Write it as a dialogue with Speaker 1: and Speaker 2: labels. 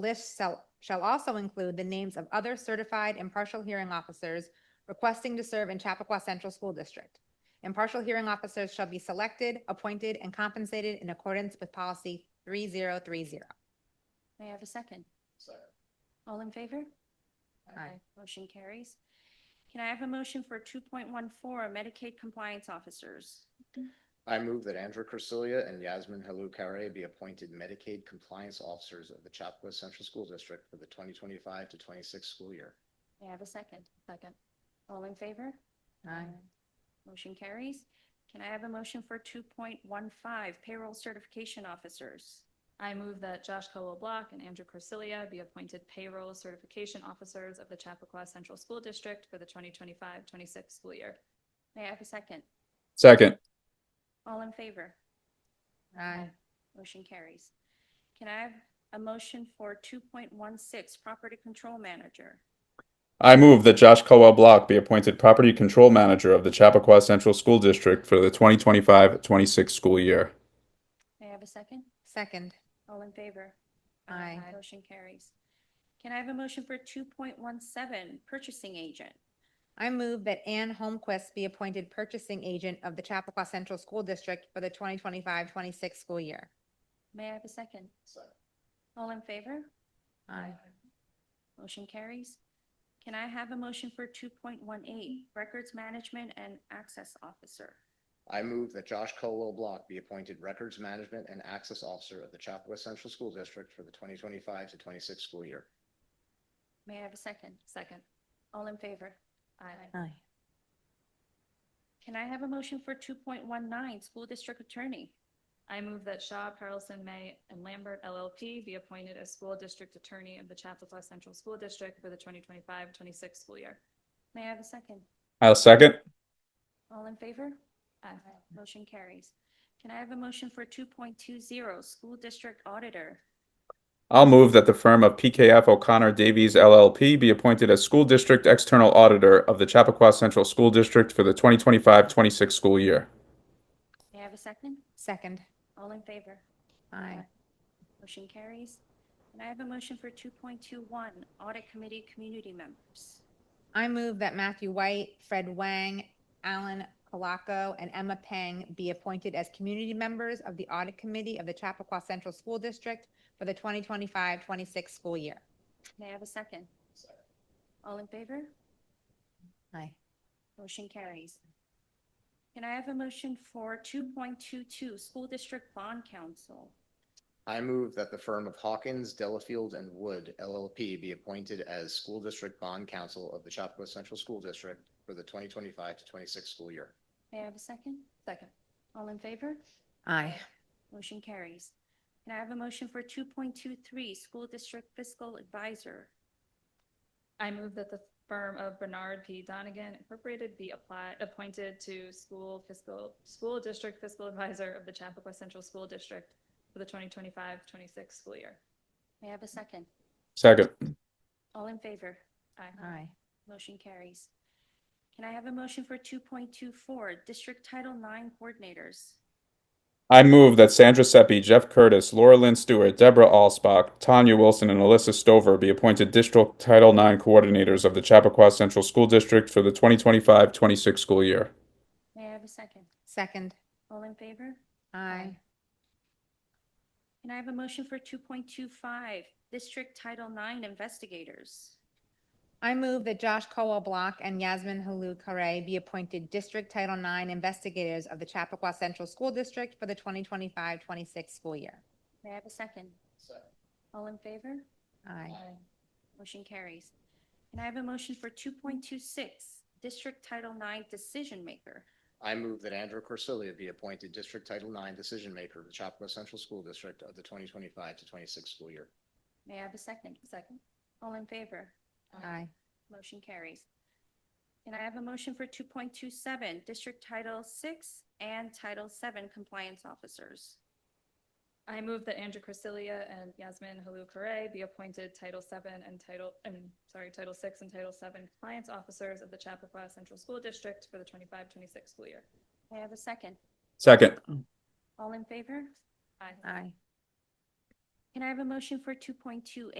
Speaker 1: list shall, shall also include the names of other certified impartial hearing officers requesting to serve in Chappaqua Central School District. Impartial hearing officers shall be selected, appointed, and compensated in accordance with policy three zero three zero.
Speaker 2: May I have a second? All in favor?
Speaker 1: Aye.
Speaker 2: Motion carries. Can I have a motion for two point one four Medicaid compliance officers?
Speaker 3: I move that Andrew Corsilia and Yasmin Halou Carey be appointed Medicaid compliance officers of the Chapakua Central School District for the 2025 to 26 school year.
Speaker 2: May I have a second? Second. All in favor? Motion carries. Can I have a motion for two point one five payroll certification officers?
Speaker 4: I move that Josh Colwell Block and Andrew Corsilia be appointed payroll certification officers of the Chappaqua Central School District for the 2025-26 school year.
Speaker 2: May I have a second?
Speaker 5: Second,
Speaker 2: All in favor?
Speaker 1: Aye.
Speaker 2: Motion carries. Can I have a motion for two point one six property control manager?
Speaker 5: I move that Josh Colwell Block be appointed Property Control Manager of the Chappaqua Central School District for the 2025-26 school year.
Speaker 2: May I have a second?
Speaker 1: Second.
Speaker 2: All in favor?
Speaker 1: Aye. Aye.
Speaker 2: Motion carries. Can I have a motion for two point one seven, purchasing agent?
Speaker 1: I move that Ann Holmquist be appointed purchasing agent of the Chappaqua Central School District for the 2025-26 school year.
Speaker 2: May I have a second? All in favor?
Speaker 1: Aye.
Speaker 2: Motion carries. Can I have a motion for two point one eight, records management and access officer?
Speaker 3: I move that Josh Colwell Block be appointed Records Management and Access Officer of the Chapakua Central School District for the 2025 to 26 school year.
Speaker 2: May I have a second?
Speaker 4: Second.
Speaker 2: All in favor? Aye.
Speaker 1: Aye.
Speaker 2: Can I have a motion for two point one nine, school district attorney?
Speaker 4: I move that Shaw, Carlson, May, and Lambert LLP be appointed as school district attorney of the Chappaqua Central School District for the 2025-26 school year.
Speaker 2: May I have a second?
Speaker 5: I'll second.
Speaker 2: All in favor?
Speaker 4: Aye.
Speaker 2: Motion carries. Can I have a motion for two point two zero, school district auditor?
Speaker 5: I'll move that the firm of PKF O'Connor Davies LLP be appointed as School District External Auditor of the Chappaqua Central School District for the 2025-26 school year.
Speaker 2: May I have a second?
Speaker 1: Second.
Speaker 2: All in favor?
Speaker 1: Aye.
Speaker 2: Motion carries. And I have a motion for 2.21, Audit Committee Community Members.
Speaker 1: I move that Matthew White, Fred Wang, Alan Colaco, and Emma Peng be appointed as community members of the Audit Committee of the Chappaqua Central School District for the 2025-26 school year.
Speaker 2: May I have a second? All in favor?
Speaker 1: Aye.
Speaker 2: Motion carries. Can I have a motion for 2.22, School District Bond Council?
Speaker 3: I move that the firm of Hawkins, Delafield, and Wood LLP be appointed as School District Bond Counsel of the Chapakua Central School District for the 2025 to 26 school year.
Speaker 2: May I have a second?
Speaker 4: Second.
Speaker 2: All in favor?
Speaker 1: Aye.
Speaker 2: Motion carries. Can I have a motion for 2.23, School District Fiscal Advisor?
Speaker 4: I move that the firm of Bernard P. Donigan Incorporated be applied, appointed to school fiscal, school district fiscal advisor of the Chappaqua Central School District for the 2025-26 school year.
Speaker 2: May I have a second?
Speaker 5: Second.
Speaker 2: All in favor?
Speaker 1: Aye.
Speaker 2: Motion carries. Can I have a motion for 2.24, District Title IX Coordinators?
Speaker 5: I move that Sandra Seppi, Jeff Curtis, Laura Lynn Stewart, Deborah Alsbach, Tanya Wilson, and Alyssa Stover be appointed District Title IX Coordinators of the Chappaqua Central School District for the 2025-26 school year.
Speaker 2: May I have a second?
Speaker 1: Second.
Speaker 2: All in favor?
Speaker 1: Aye.
Speaker 2: Can I have a motion for 2.25, District Title IX Investigators?
Speaker 1: I move that Josh Colwell Block and Yasmin Halou Carey be appointed District Title IX investigators of the Chappaqua Central School District for the 2025-26 school year.
Speaker 2: May I have a second? All in favor?
Speaker 1: Aye.
Speaker 2: Motion carries. Can I have a motion for 2.26, District Title IX Decision Maker?
Speaker 3: I move that Andrew Corsilia be appointed District Title IX Decision Maker of the Chapakua Central School District of the 2025 to 26 school year.
Speaker 2: May I have a second? Second. All in favor?
Speaker 1: Aye.
Speaker 2: Motion carries. Can I have a motion for 2.27, District Title VI and Title VII Compliance Officers?
Speaker 4: I move that Andrew Corsilia and Yasmin Halou Carey be appointed Title VII and Title, i sorry, Title VI and Title VII compliance officers of the Chappaqua Central School District for the 25-26 school year.
Speaker 2: May I have a second?
Speaker 5: Second.
Speaker 2: All in favor?
Speaker 4: Aye.
Speaker 1: Aye.
Speaker 2: Can I have a motion for 2.28,